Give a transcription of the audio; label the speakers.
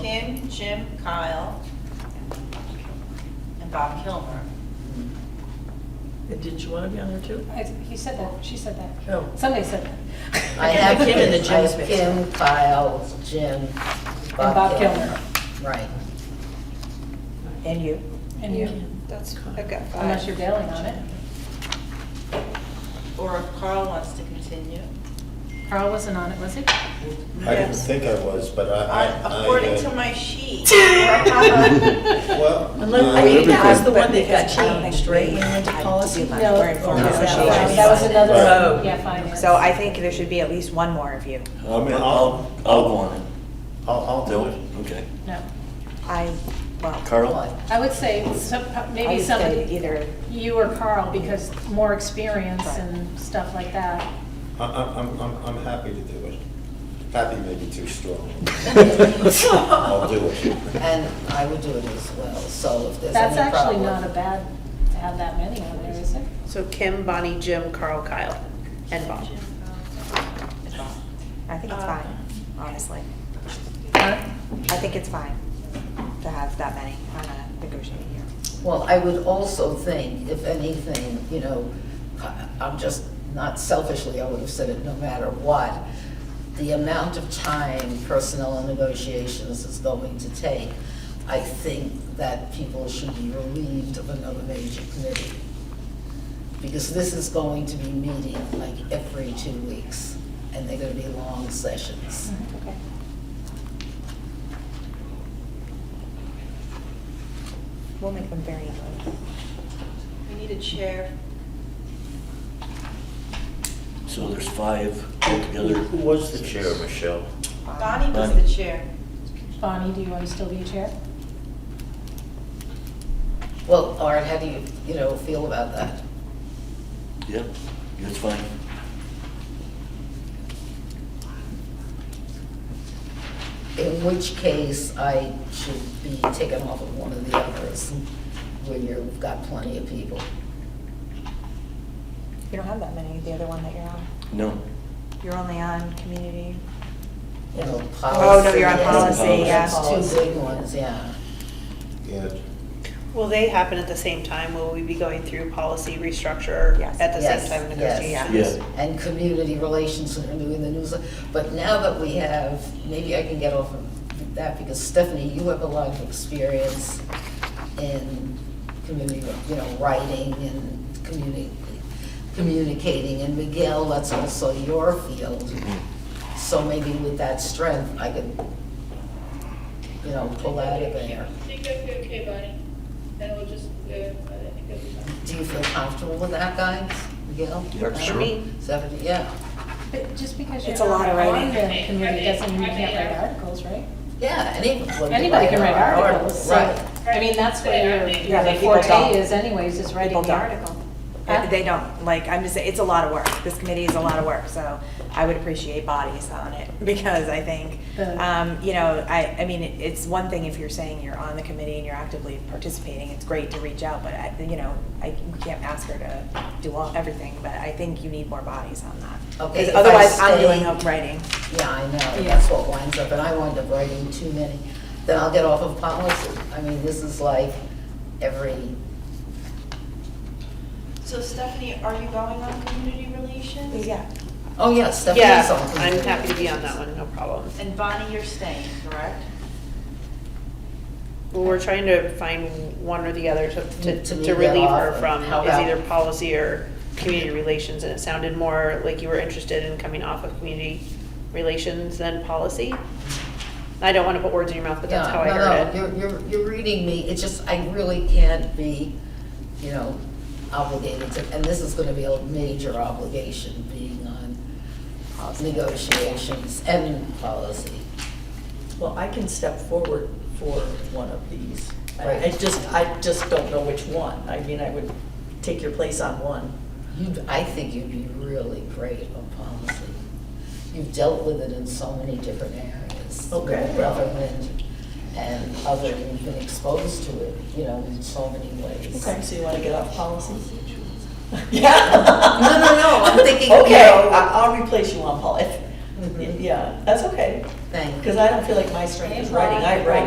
Speaker 1: Kim, Jim, Kyle, and Bob Kilmer.
Speaker 2: And Did you want to be on there too?
Speaker 3: I- He said that, she said that.
Speaker 2: No.
Speaker 3: Somebody said that.
Speaker 2: I have Kim and the Jim
Speaker 4: I have
Speaker 2: space.
Speaker 4: Kim, Kyle, Jim, Bob
Speaker 3: Bob
Speaker 4: Kilmer. Right.
Speaker 5: And you?
Speaker 3: And you,
Speaker 6: That's, I've got five.
Speaker 3: unless you're bailing on it.
Speaker 1: Or if Carl wants to continue.
Speaker 3: Carl wasn't on it, was he?
Speaker 7: I didn't
Speaker 1: Yes.
Speaker 7: think I was, but I- I. I,
Speaker 1: According
Speaker 7: uh,
Speaker 1: to my sheet.
Speaker 7: Well.
Speaker 2: Unless,
Speaker 7: no,
Speaker 2: I think that was
Speaker 7: everything-
Speaker 2: the one that got
Speaker 5: Because I don't
Speaker 2: changed,
Speaker 5: think
Speaker 2: right,
Speaker 5: we
Speaker 2: in
Speaker 5: had
Speaker 2: the
Speaker 5: time to
Speaker 2: policy?
Speaker 5: do much.
Speaker 3: No.
Speaker 5: We're in
Speaker 7: Oh,
Speaker 5: foreign
Speaker 7: okay.
Speaker 5: negotiations.
Speaker 3: That was another,
Speaker 2: Right.
Speaker 3: yeah, finance.
Speaker 5: So I think there should be at least one more of you.
Speaker 7: I mean,
Speaker 8: I'll,
Speaker 7: I'll,
Speaker 8: I'll go on it.
Speaker 7: I'll, I'll
Speaker 8: Do
Speaker 7: do
Speaker 8: it,
Speaker 7: it.
Speaker 8: okay.
Speaker 3: No.
Speaker 5: I, well.
Speaker 8: Carl?
Speaker 3: I would say some-
Speaker 5: I
Speaker 3: maybe
Speaker 5: would say
Speaker 3: somebody,
Speaker 5: Either,
Speaker 3: you or Carl, because more experience and stuff like that.
Speaker 7: I, I- I'm, I'm, I'm happy to do it. Happy may be too strong. I'll do it.
Speaker 4: And I would do it as well, so if there's
Speaker 3: That's
Speaker 4: any
Speaker 3: actually
Speaker 4: problem.
Speaker 3: not a bad, to have that many on there, is it?
Speaker 6: So Kim, Bonnie, Jim, Carl, Kyle, and Bob.
Speaker 5: I think it's fine,
Speaker 3: Uh,
Speaker 5: honestly.
Speaker 3: Huh?
Speaker 5: I think it's fine to have that many on a negotiating year.
Speaker 4: Well, I would also think, if anything, you know, I- I'm just, not selfishly, I would have said it no matter what, the amount of time personnel and negotiations is going to take, I think that people should be relieved of another major committee. Because this is going to be meeting like every two weeks, and they're gonna be long sessions.
Speaker 3: Mm-hmm.
Speaker 5: We'll make them very low.
Speaker 1: We need a chair.
Speaker 8: So there's five altogether.
Speaker 7: Who was the chair, Michelle?
Speaker 1: Bonnie was the chair.
Speaker 3: Bonnie, do you want to still be chair?
Speaker 4: Well, Art, how do you, you know, feel about that?
Speaker 8: Yep, that's fine.
Speaker 4: In which case, I should be taken off of one of the others when you've got plenty of people.
Speaker 5: You don't have that many, the other one that you're on.
Speaker 8: No.
Speaker 5: You're only on community.
Speaker 4: You know, policy.
Speaker 5: Oh, no, you're on
Speaker 4: yes.
Speaker 5: policy,
Speaker 8: yeah.
Speaker 4: That's two big ones, yeah.
Speaker 7: Yeah.
Speaker 6: Will they happen at the same time? Will we be going through policy restructure
Speaker 5: Yes.
Speaker 6: at the
Speaker 4: Yes,
Speaker 6: same time
Speaker 4: yes.
Speaker 6: negotiations?
Speaker 8: Yeah.
Speaker 4: And community relations and doing the news. But now that we have, maybe I can get off of that because Stephanie, you have a lot of experience in community, you know, writing and communi- communicating. And Miguel, that's also your field. So maybe with that strength, I could, you know, pull out of there.
Speaker 9: I think I'd be okay, Bonnie. Then we'll just, uh, I think it'll be fine.
Speaker 4: Do you feel comfortable with that, guys? Miguel?
Speaker 8: Yeah, sure.
Speaker 4: Stephanie, yeah.
Speaker 3: But just because you're
Speaker 5: It's a lot
Speaker 3: not
Speaker 5: of
Speaker 3: on
Speaker 5: writing.
Speaker 3: the committee doesn't mean you
Speaker 9: I mean,
Speaker 3: can't
Speaker 9: I mean,
Speaker 3: write
Speaker 9: uh,
Speaker 3: articles, right?
Speaker 4: Yeah, anybody.
Speaker 3: Anybody can write articles, so,
Speaker 4: uh, Right.
Speaker 3: I mean, that's what your,
Speaker 5: Yeah,
Speaker 3: your
Speaker 5: but people don't.
Speaker 3: forte is anyways, is writing
Speaker 5: People
Speaker 3: the
Speaker 5: don't.
Speaker 3: article.
Speaker 5: They-
Speaker 3: Huh?
Speaker 5: They don't, like, I'm just, saying, it's a lot of work. This committee is a lot of work, so I would appreciate bodies on it because I think,
Speaker 3: The-
Speaker 5: um, you know, I, I mean, it- it's one thing if you're saying you're on the committee and you're actively participating, it's great to reach out, but I, you know, I we can't ask her to do all, everything, but I think you need more bodies on that. 'Cause
Speaker 4: Okay, if I
Speaker 5: Otherwise, I'm
Speaker 4: stay-
Speaker 5: doing up writing.
Speaker 4: Yeah, I know,
Speaker 3: Yeah.
Speaker 4: that's what winds up, and I wind up writing too many. Then I'll get off of policy. I mean, this is like every,
Speaker 1: So Stephanie, are you going on community relations?
Speaker 5: Yeah.
Speaker 4: oh, yeah, Stephanie's on.
Speaker 6: Yeah, I'm happy to be on that one, no problem.
Speaker 1: And Bonnie, you're staying, correct?
Speaker 6: Well, we're trying to find one or the other to, to-
Speaker 4: To
Speaker 6: to
Speaker 4: leave that
Speaker 6: relieve
Speaker 4: off
Speaker 6: her
Speaker 4: and
Speaker 6: from,
Speaker 4: help
Speaker 6: is
Speaker 4: out.
Speaker 6: either policy or community relations, and it sounded more like you were interested in coming off of community relations than policy. I don't want to put words in your mouth, but that's
Speaker 4: Yeah,
Speaker 6: how I heard
Speaker 4: No,
Speaker 6: it.
Speaker 4: no, you're, you're, you're reading me, it's just, I really can't be, you know, obligated to, and this is gonna be a major obligation, being on negotiations and policy.
Speaker 2: Well, I can step forward for one of these. I- I
Speaker 4: Right.
Speaker 2: just, I just don't know which one. I mean, I would take your place on one.
Speaker 4: You'd, I think you'd be really great on policy. You've dealt with it in so many different areas. you know,
Speaker 2: Okay.
Speaker 4: Government and other, you've been exposed to it, you know, in so many ways.
Speaker 2: So you want to get off policy? Yeah.
Speaker 4: No, no, no, I'm thinking, you
Speaker 2: Okay,
Speaker 4: know-
Speaker 2: I- I'll replace you on policy.
Speaker 4: Mhm.
Speaker 2: Yeah, that's okay.
Speaker 10: Thank you.
Speaker 6: Because I don't feel like my strength is writing, I write